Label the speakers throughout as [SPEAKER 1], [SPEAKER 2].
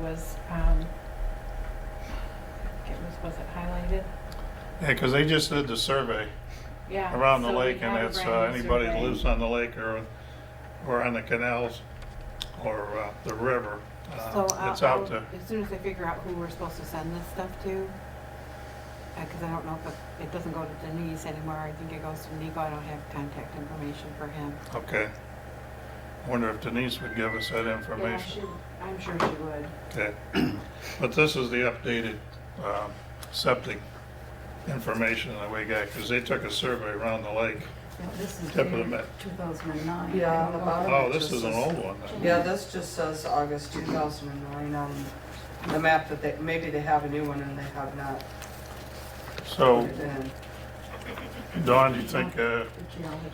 [SPEAKER 1] was, um, it was, was it highlighted?
[SPEAKER 2] Yeah, because they just did the survey
[SPEAKER 1] Yeah.
[SPEAKER 2] around the
[SPEAKER 1] so we
[SPEAKER 2] lake, and
[SPEAKER 1] had a
[SPEAKER 2] it's uh,
[SPEAKER 1] brand new
[SPEAKER 2] anybody that
[SPEAKER 1] survey.
[SPEAKER 2] lives on the lake or, or on the canals or uh, the river. uh,
[SPEAKER 1] So I'll-
[SPEAKER 2] It's out
[SPEAKER 1] I'll-
[SPEAKER 2] to,
[SPEAKER 1] As soon as I figure out who we're supposed to send this stuff to, because I don't know if it- it doesn't go to Denise anymore, I think it goes to Nico, I don't have contact information for him.
[SPEAKER 2] okay. Wonder if Denise would give us that
[SPEAKER 1] Yeah,
[SPEAKER 2] information.
[SPEAKER 1] she- I'm sure she would.
[SPEAKER 2] Okay, but this is the updated um, septic information that we got, because they took a survey around the lake.
[SPEAKER 3] Yeah, This is
[SPEAKER 2] Tip of the
[SPEAKER 3] dated
[SPEAKER 2] mat.
[SPEAKER 3] 2009.
[SPEAKER 4] Yeah, on the bottom.
[SPEAKER 2] Oh, this is an old one. then.
[SPEAKER 4] Yeah, this just says August 2009 on the map that they, maybe they have a new one and they have not put
[SPEAKER 2] So,
[SPEAKER 4] it in.
[SPEAKER 2] Dawn, do you think, uh,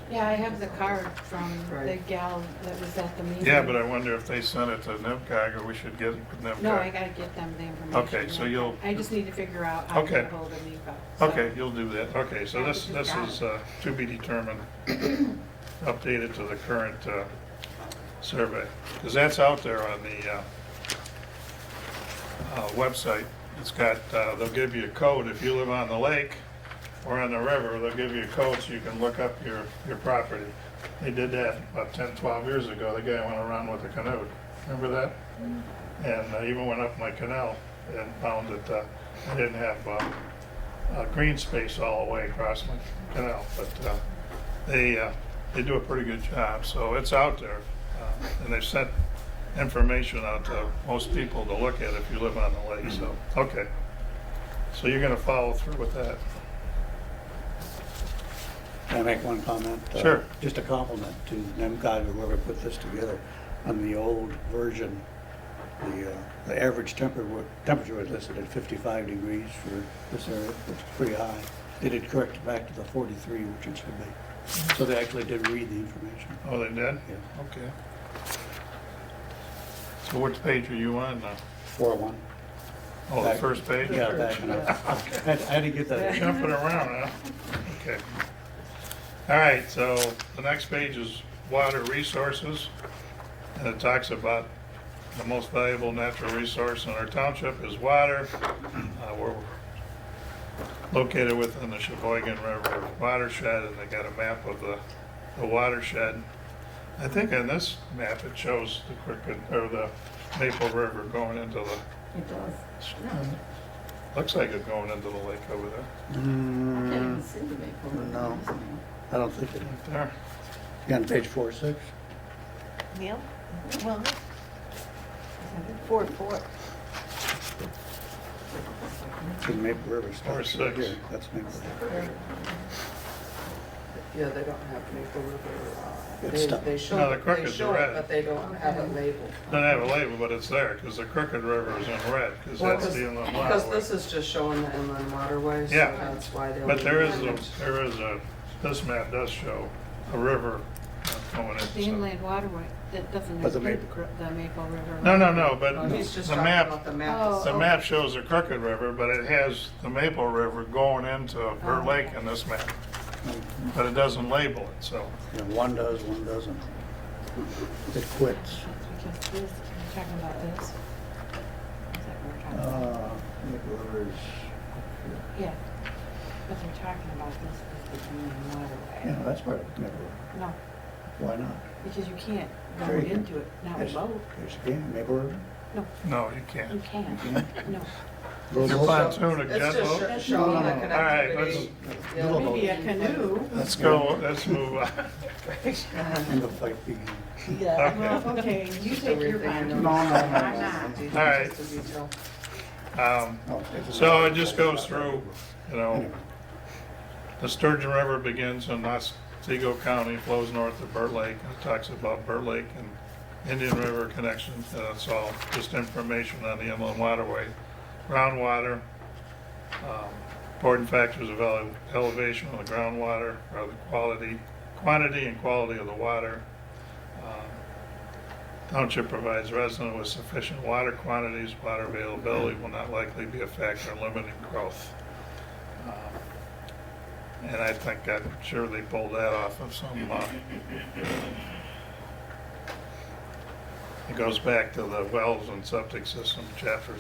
[SPEAKER 1] Yeah, I have the card from the
[SPEAKER 4] Right.
[SPEAKER 1] gal that was at the meeting.
[SPEAKER 2] yeah, but I wonder if they sent it to NIMCOG, or we should get it with NIMCOG?
[SPEAKER 1] No, I gotta get them the information.
[SPEAKER 2] Okay, so
[SPEAKER 1] yeah.
[SPEAKER 2] you'll-
[SPEAKER 1] I just need to figure out how to
[SPEAKER 2] Okay.
[SPEAKER 1] get hold of Nico. so-
[SPEAKER 2] Okay, you'll do that. Okay, so
[SPEAKER 1] Yeah,
[SPEAKER 2] this,
[SPEAKER 1] we just
[SPEAKER 2] this
[SPEAKER 1] got
[SPEAKER 2] is uh, to be determined, updated to the current uh, survey. Because that's out there on the uh, uh, website. It's got, uh, they'll give you a code if you live on the lake or on the river, they'll give you a code so you can look up your, your property. They did that about 10, 12 years ago. The guy went around with a canoe. Remember that? And I even went up my canal and found that uh, I didn't have uh, uh, green space all the way across my canal, but uh, they, uh, they do a pretty good job, so it's out there. Uh, And they've sent information out to most people to look at if you live on the lake, so,
[SPEAKER 5] Mm-hmm.
[SPEAKER 2] okay. So you're gonna follow through with that?
[SPEAKER 5] Can I make one comment? Uh,
[SPEAKER 2] Sure.
[SPEAKER 5] Just a compliment to NEMCOG, whoever put this together. On the old version, the, uh, the average temper wa- temperature was listed at 55 degrees for this area, which is pretty high. They did correct it back to the 43, which it should be. So they actually did read the information.
[SPEAKER 2] Oh, they did?
[SPEAKER 5] Yeah,
[SPEAKER 2] Okay. So which page are you on now?
[SPEAKER 5] 4-1.
[SPEAKER 2] Oh, the first page?
[SPEAKER 5] Yeah, back and up. I had- I had to get that.
[SPEAKER 2] Jumping around, huh? Okay. All right, so the next page is water resources. And it talks about the most valuable natural resource in our township is water. Uh, We're located within the Sheboygan River watershed, and they got a map of the, the watershed. I think on this map, it shows the Crooked, or the Maple River going into the,
[SPEAKER 3] It does.
[SPEAKER 2] looks like it going into the lake over there,
[SPEAKER 3] I can't
[SPEAKER 5] Mm,
[SPEAKER 3] even see the maple.
[SPEAKER 5] No. I don't think it,
[SPEAKER 2] right there.
[SPEAKER 5] you on page 4-6?
[SPEAKER 6] Neil?
[SPEAKER 1] Mm-hmm.
[SPEAKER 6] Well, four, four.
[SPEAKER 5] See Maple River starts right
[SPEAKER 2] 4-6.
[SPEAKER 5] here. That's Maple River.
[SPEAKER 4] Yeah, they don't have Maple River. uh,
[SPEAKER 5] It's
[SPEAKER 4] they-
[SPEAKER 5] stuck.
[SPEAKER 4] They show,
[SPEAKER 2] No, the
[SPEAKER 4] they
[SPEAKER 2] crocodile's
[SPEAKER 4] show
[SPEAKER 2] red.
[SPEAKER 4] it, but they don't have it labeled.
[SPEAKER 2] Doesn't have a label, but it's there, because the Crooked River is in red, because
[SPEAKER 4] Well,
[SPEAKER 2] that's the inland
[SPEAKER 4] Because this
[SPEAKER 2] waterway.
[SPEAKER 4] is just showing the inland waterways, so
[SPEAKER 2] Yeah.
[SPEAKER 4] that's why they.
[SPEAKER 2] But there is, a
[SPEAKER 4] labeled it.
[SPEAKER 2] there is a, this map does show a river uh, going in.
[SPEAKER 1] The
[SPEAKER 2] so-
[SPEAKER 1] inland waterway, that doesn't
[SPEAKER 5] But the
[SPEAKER 1] include
[SPEAKER 5] Maple-
[SPEAKER 1] Cro- the Maple River.
[SPEAKER 2] No, no, no, but
[SPEAKER 4] Oh, He's just
[SPEAKER 2] the
[SPEAKER 4] talking about
[SPEAKER 2] map,
[SPEAKER 4] the map.
[SPEAKER 1] Oh.
[SPEAKER 2] the map shows the Crooked River, but it has the Maple River going into
[SPEAKER 4] Oh,
[SPEAKER 2] Burt Lake in this map. But it doesn't label it, so,
[SPEAKER 5] Yeah, one does, one doesn't. It quits.
[SPEAKER 1] That's because this, we're talking about this. Is that what we're talking about?
[SPEAKER 5] Uh, Maple River's,
[SPEAKER 1] Yeah, but they're talking about this as the inland
[SPEAKER 5] yeah,
[SPEAKER 1] waterway.
[SPEAKER 5] that's part of Maple River.
[SPEAKER 1] No,
[SPEAKER 5] Why not?
[SPEAKER 1] because you can't go
[SPEAKER 5] Sure you can.
[SPEAKER 1] into it, not with
[SPEAKER 5] Yes.
[SPEAKER 1] boat.
[SPEAKER 5] There's again, Maple River.
[SPEAKER 1] No,
[SPEAKER 2] no, you
[SPEAKER 1] you
[SPEAKER 2] can't.
[SPEAKER 1] can't, no.
[SPEAKER 2] Your pontoon, a
[SPEAKER 4] It's
[SPEAKER 2] jet
[SPEAKER 4] just
[SPEAKER 2] boat?
[SPEAKER 4] sho- showing the
[SPEAKER 5] No, no, no. All
[SPEAKER 2] right,
[SPEAKER 4] connectivity.
[SPEAKER 5] let's-
[SPEAKER 4] Yeah.
[SPEAKER 5] Little Maybe
[SPEAKER 1] a canoe.
[SPEAKER 2] Let's go, let's move on.
[SPEAKER 5] And the fight begins.
[SPEAKER 6] Yeah.
[SPEAKER 2] Okay.
[SPEAKER 1] Okay, you
[SPEAKER 4] Just everything in
[SPEAKER 1] boat.
[SPEAKER 4] the-
[SPEAKER 5] No, no, no, no.
[SPEAKER 1] I'm not.
[SPEAKER 4] Just
[SPEAKER 2] All right.
[SPEAKER 4] the detail.
[SPEAKER 2] Um,
[SPEAKER 5] No, it's-
[SPEAKER 2] So it just goes through, you know, the Sturgeon River begins in Otsego County, flows north of Burt Lake, and it talks about Burt Lake and Indian River connection, and that's all just information on the inland waterway. Groundwater, um, important factors of ele- elevation of the groundwater, or the quality, quantity and quality of the water. Um, Township provides residents with sufficient water quantities, water availability will not likely be a factor in limiting growth. Um, And I think, I'm sure they pulled that off of some, uh, It goes back to the wells and septic system, chapter